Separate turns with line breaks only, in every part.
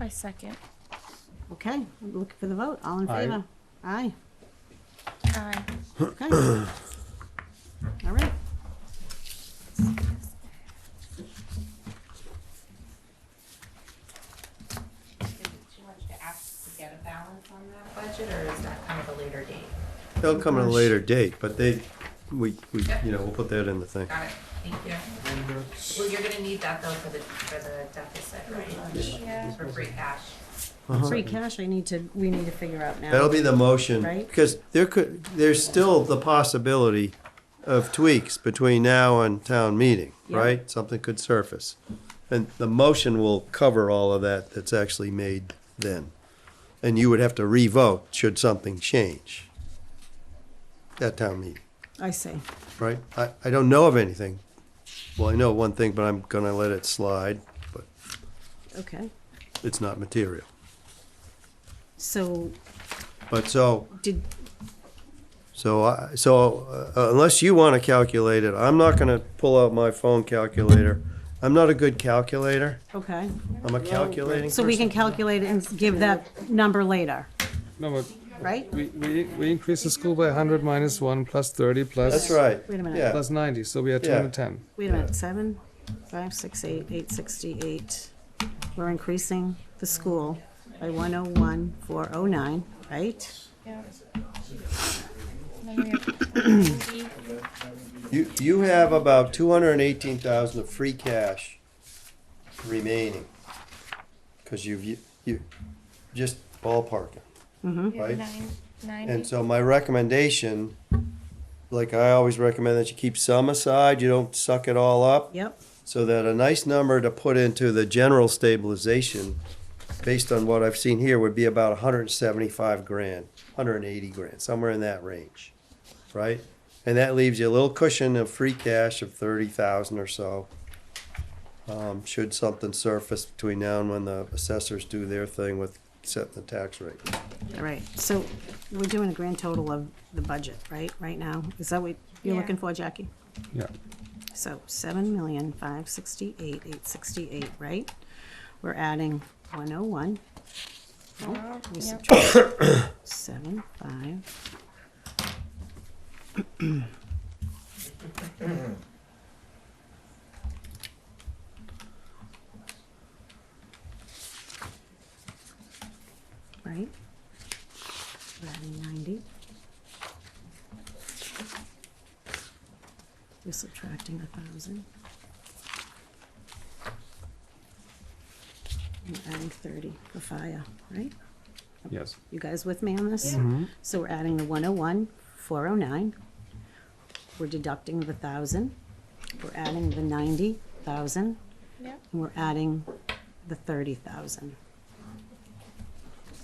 I second.
Okay, I'm looking for the vote. All in
Aye.
favor? Aye.
Aye.
Okay. All right.
Is it too much to ask to get a balance on that budget, or is that kind of a later date?
They'll come at a later date, but they, we, we, you know, we'll put that in the thing.
Got it, thank you. Well, you're gonna need that though for the, for the deficit, right?
Yeah.
For free cash.
Free cash, I need to, we need to figure out now.
Uh-huh. That'll be the motion,
Right.
because there could, there's still the possibility of tweaks between now and town meeting,
Yeah.
right? Something could surface. And the motion will cover all of that that's actually made then. And you would have to revote should something change at town meeting,
I see.
right? I, I don't know of anything. Well, I know one thing, but I'm gonna let it slide, but
Okay.
it's not material.
So
But so,
did,
So, I- so uh, unless you want to calculate it, I'm not going to pull out my phone calculator. I'm not a good calculator.
okay.
I'm a calculating
So we
person.
can calculate and give that number later,
No, but
right?
we, we, we increased the school by 100 minus 1 plus 30 plus,
That's right.
Wait a minute.
Yeah,
plus 90. So we are
Yeah.
210.
Wait a minute, seven, five, six, eight, eight sixty-eight. We're increasing the school by one oh one, four oh nine, right?
Yeah. Then we have forty.
you, you have about two hundred and eighteen thousand of free cash remaining. Because you've, you, you, just ballparking.
Mm-hmm.
We have
Right.
nine-
And
Ninety.
so my recommendation, like I always recommend that you keep some aside, you don't suck it all up.
Yep,
So that a nice number to put into the general stabilization, based on what I've seen here, would be about hundred and seventy-five grand, hundred and eighty grand, somewhere in that range, right? And that leaves you a little cushion of free cash of thirty thousand or so. Um, should something surface between now and when the assessors do their thing with setting the tax rate.
all right. So we're doing a grand total of the budget, right, right now? Is that what you're
Yeah.
looking for, Jackie?
Yeah.
So seven million, five sixty-eight, eight sixty-eight, right? We're adding one oh one,
Wow.
we
Yep.
subtract seven, five. Right? We're adding ninety. We're subtracting a thousand. We're adding thirty for fire, right?
Yes.
You guys with me on this? So we're adding the 101, 409. We're deducting the 1,000. We're adding the 90,000,
Yep.
and we're adding the 30,000.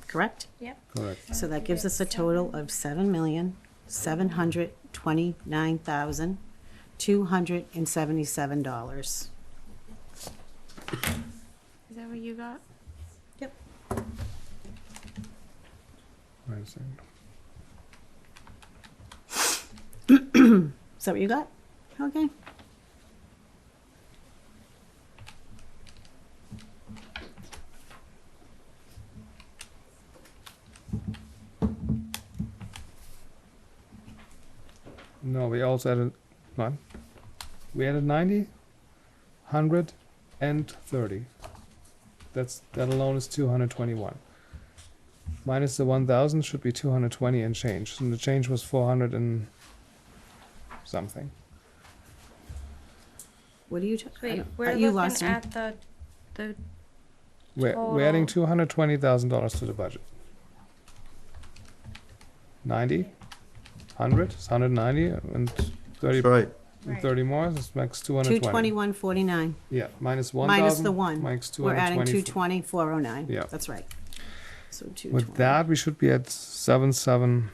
Correct?
Yep.
Correct.
So that gives us a total of seven million, seven hundred twenty-nine thousand, two hundred and seventy-seven dollars.
Is that what you got?
Wait a second.
Is that what you got? Okay.
No, we also added nine. We added 90, 100, and 30. That's that alone is 221. Minus the 1,000 should be 220 and change. And the change was 400 and something.
What are you, ta- I
Wait,
don't- uh,
we're
you lost
looking
me.
at the, the,
We're,
Oh,
we're adding
Total.
two hundred twenty thousand dollars to the budget. Ninety, hundred, it's hundred ninety, and thirty,
That's right.
and thirty more, so it's makes two
Two
hundred oh twenty.
twenty-one, forty-nine.
Yeah, minus one thousand.
Minus the one.
Makes two
We're adding
hundred
two
twenty.
twenty, four oh nine.
Yeah.
That's right. So two twenty.
With that, we should be at seven, seven,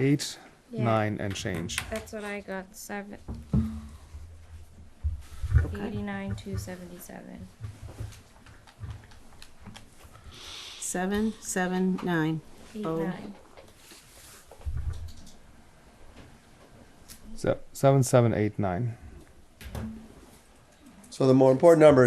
eight,
yeah,
nine, and change.
that's what I got, seven,
Okay.
eighty-nine, two seventy-seven.
Seven, seven, nine.
Eight,
Oh.
nine.
So, seven, seven, eight, nine.
So the more important number